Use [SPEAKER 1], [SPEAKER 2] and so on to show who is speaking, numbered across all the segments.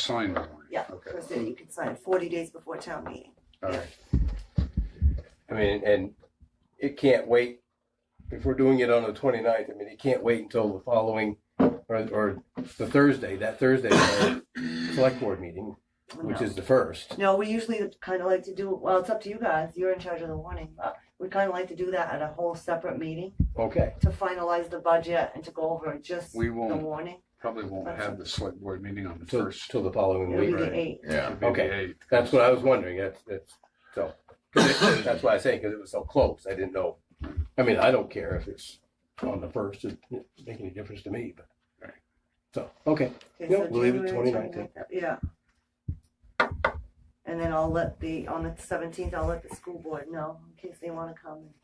[SPEAKER 1] sign the warning?
[SPEAKER 2] Yeah,
[SPEAKER 1] Okay,
[SPEAKER 2] that's it, you can sign forty days before town meeting.
[SPEAKER 1] all right.
[SPEAKER 3] I mean, and it can't wait. If we're doing it on the 29th, I mean, it can't wait until the following, or, or the Thursday, that Thursday, uh, select board meeting, which
[SPEAKER 2] No.
[SPEAKER 3] is the first.
[SPEAKER 2] No, we usually kind of like to do, well, it's up to you guys, you're in charge of the warning, but we kind of like to do that at a whole separate meeting
[SPEAKER 3] Okay,
[SPEAKER 2] to finalize the budget and to go over just the
[SPEAKER 1] We won't-
[SPEAKER 2] warning.
[SPEAKER 1] Probably won't have the select board meeting on the
[SPEAKER 3] till,
[SPEAKER 1] first.
[SPEAKER 3] till the following
[SPEAKER 2] It'll be
[SPEAKER 3] week.
[SPEAKER 2] the
[SPEAKER 1] right.
[SPEAKER 2] eighth.
[SPEAKER 4] Yeah,
[SPEAKER 1] It'd be the
[SPEAKER 3] Okay.
[SPEAKER 1] eighth.
[SPEAKER 3] That's what I was wondering. That's, that's, so, 'cause it- that's why I say, because it was so close, I didn't know. I mean, I don't care if it's on the first, it doesn't make any difference to me, but.
[SPEAKER 1] Right.
[SPEAKER 3] So, okay,
[SPEAKER 2] Okay,
[SPEAKER 3] Yeah,
[SPEAKER 2] so
[SPEAKER 3] we'll leave it
[SPEAKER 2] January
[SPEAKER 3] 29th,
[SPEAKER 2] 29th, Yeah. And then I'll let the, on the seventeenth, I'll let the school board know in case they wanna come. and-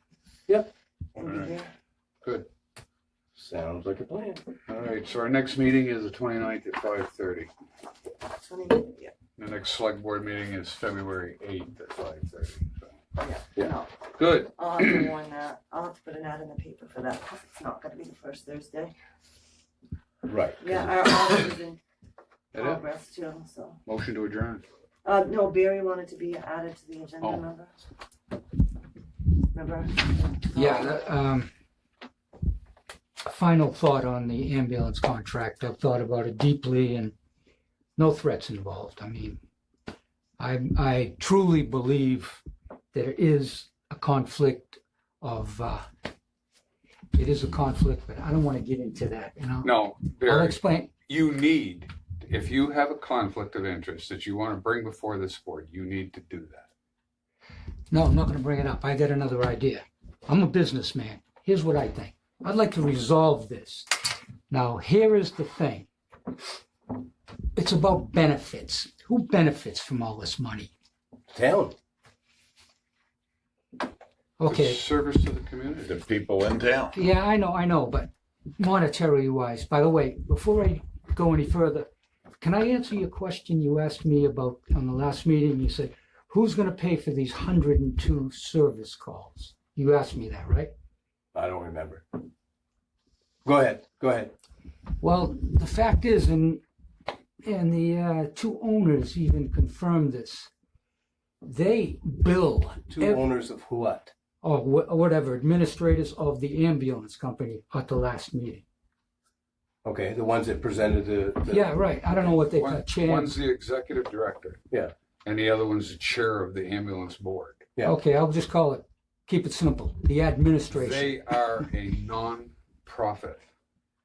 [SPEAKER 3] Yep.
[SPEAKER 2] And be
[SPEAKER 1] Alright.
[SPEAKER 2] here.
[SPEAKER 3] sounds like a plan.
[SPEAKER 1] All right, so our next meeting is the 29th at five thirty.
[SPEAKER 2] 20 yeah,
[SPEAKER 1] The next select board meeting is February eighth at five thirty.
[SPEAKER 3] Yeah.
[SPEAKER 2] no,
[SPEAKER 1] Good,
[SPEAKER 2] I'll have to warn that, I'll have to put an ad in the paper for that, 'cause it's not gonna be the first Thursday.
[SPEAKER 3] Right.
[SPEAKER 2] Yeah, our audit is in
[SPEAKER 1] That it?
[SPEAKER 2] progress too, so.
[SPEAKER 1] motion to adjourn.
[SPEAKER 2] Uh, no, Barry wanted to be added to the agenda,
[SPEAKER 1] Oh.
[SPEAKER 2] remember? Remember?
[SPEAKER 5] Yeah, the, um, final thought on the ambulance contract. I've thought about it deeply and no threats involved. I mean, I, I truly believe there is a conflict of, uh, it is a conflict, but I don't want to get into that, you know?
[SPEAKER 1] No,
[SPEAKER 5] I'll
[SPEAKER 1] Barry,
[SPEAKER 5] explain,
[SPEAKER 1] you need, if you have a conflict of interest that you want to bring before this board, you need to do that.
[SPEAKER 5] no, I'm not going to bring it up. I got another idea. I'm a businessman. Here's what I think. I'd like to resolve this. Now, here is the thing. it's about benefits. Who benefits from all this money?
[SPEAKER 3] Town.
[SPEAKER 5] Okay,
[SPEAKER 1] Service to the community.
[SPEAKER 4] the people in town.
[SPEAKER 5] yeah, I know, I know, but monetary wise, by the way, before I go any further, can I answer your question you asked me about on the last meeting? You said, who's going to pay for these 102 service calls? You asked me that, right?
[SPEAKER 3] I don't remember. Go ahead, go ahead.
[SPEAKER 5] Well, the fact is, and and the uh, two owners even confirmed this. They bill
[SPEAKER 3] Two
[SPEAKER 5] ev-
[SPEAKER 3] owners of what?
[SPEAKER 5] or wh- whatever administrators of the ambulance company at the last meeting.
[SPEAKER 3] Okay, the ones that presented the. the-
[SPEAKER 5] Yeah, right. I don't know what they
[SPEAKER 1] One-
[SPEAKER 5] got. Chance.
[SPEAKER 1] One's the executive director.
[SPEAKER 3] Yeah.
[SPEAKER 1] And the other one's the chair of the ambulance board.
[SPEAKER 3] yeah.
[SPEAKER 5] Okay, I'll just call it. Keep it simple. The administration.
[SPEAKER 1] They are a non-profit,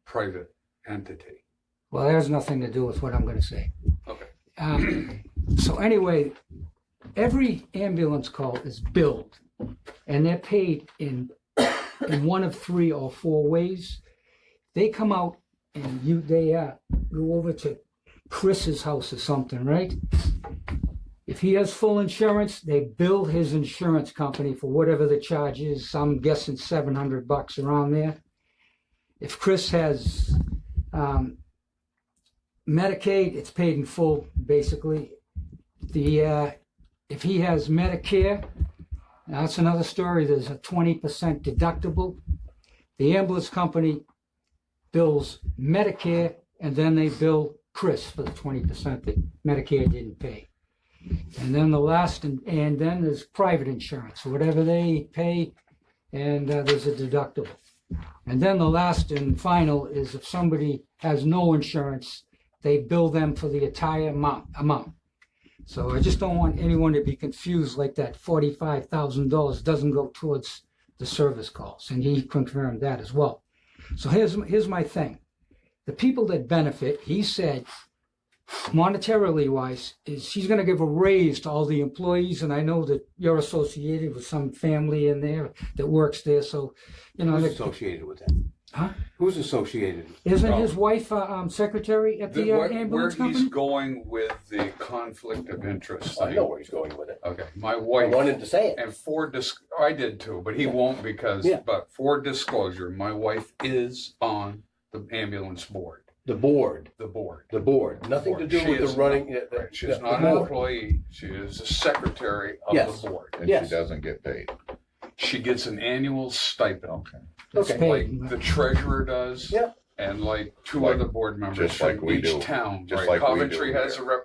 [SPEAKER 1] private entity.
[SPEAKER 5] well, that has nothing to do with what I'm going to say.
[SPEAKER 1] Okay.
[SPEAKER 5] Um, so anyway, every ambulance call is billed, and they're paid in in one of three or four ways. They come out and you they uh, go over to Chris's house or something, right? If he has full insurance, they bill his insurance company for whatever the charge is. I'm guessing seven hundred bucks around there. If Chris has um, Medicaid, it's paid in full, basically. The, uh, if he has Medicare, that's another story, there's a twenty percent deductible. The ambulance company bills Medicare, and then they bill Chris for the twenty percent that Medicare didn't pay. And then the last, and, and then there's private insurance, whatever they pay, and uh, there's a deductible. And then the last and final is if somebody has no insurance, they bill them for the entire amount, amount. So I just don't want anyone to be confused like that forty-five thousand dollars doesn't go towards the service calls, and he confirmed that as well. So here's, here's my thing. The people that benefit, he said, monetarily wise, is she's gonna give a raise to all the employees, and I know that you're associated with some family in there that works there, so, you know.
[SPEAKER 3] Who's
[SPEAKER 5] that-
[SPEAKER 3] associated with that?
[SPEAKER 5] Huh?
[SPEAKER 3] Who's associated? with the
[SPEAKER 5] Isn't
[SPEAKER 3] problem?
[SPEAKER 5] his wife uh, um, secretary at the
[SPEAKER 1] Oh. The-
[SPEAKER 5] uh,
[SPEAKER 1] where- Where
[SPEAKER 5] ambulance
[SPEAKER 1] he's
[SPEAKER 5] company?
[SPEAKER 1] going with the conflict of interest
[SPEAKER 3] I know
[SPEAKER 1] thing.
[SPEAKER 3] where he's going with it.
[SPEAKER 1] Okay, my
[SPEAKER 3] I
[SPEAKER 1] wife,
[SPEAKER 3] wanted to say it.
[SPEAKER 1] and for dis, I did too, but he won't because,
[SPEAKER 3] Yeah.
[SPEAKER 1] but for disclosure, my wife is on the ambulance board,
[SPEAKER 3] The board,
[SPEAKER 1] the board.
[SPEAKER 3] the board, nothing to
[SPEAKER 1] Board.
[SPEAKER 3] do
[SPEAKER 1] She
[SPEAKER 3] with
[SPEAKER 1] is
[SPEAKER 3] the running.
[SPEAKER 1] not-
[SPEAKER 3] yeah, the-
[SPEAKER 1] Right,
[SPEAKER 3] yeah,
[SPEAKER 1] she's
[SPEAKER 3] the
[SPEAKER 1] not an
[SPEAKER 3] board.
[SPEAKER 1] employee, she is the secretary of
[SPEAKER 3] Yes.
[SPEAKER 1] the board.
[SPEAKER 4] And
[SPEAKER 3] Yes.
[SPEAKER 4] she doesn't get paid.
[SPEAKER 1] She gets an annual stipend,
[SPEAKER 5] It's
[SPEAKER 3] Okay.
[SPEAKER 5] paid.
[SPEAKER 1] like the treasurer does.
[SPEAKER 3] Yeah.
[SPEAKER 1] and like two
[SPEAKER 4] Like-
[SPEAKER 1] other board members
[SPEAKER 4] just like
[SPEAKER 1] from
[SPEAKER 4] we
[SPEAKER 1] each
[SPEAKER 4] do.
[SPEAKER 1] town.
[SPEAKER 4] Just
[SPEAKER 1] right?
[SPEAKER 4] like we do
[SPEAKER 1] Coventry has a
[SPEAKER 4] here.
[SPEAKER 1] rep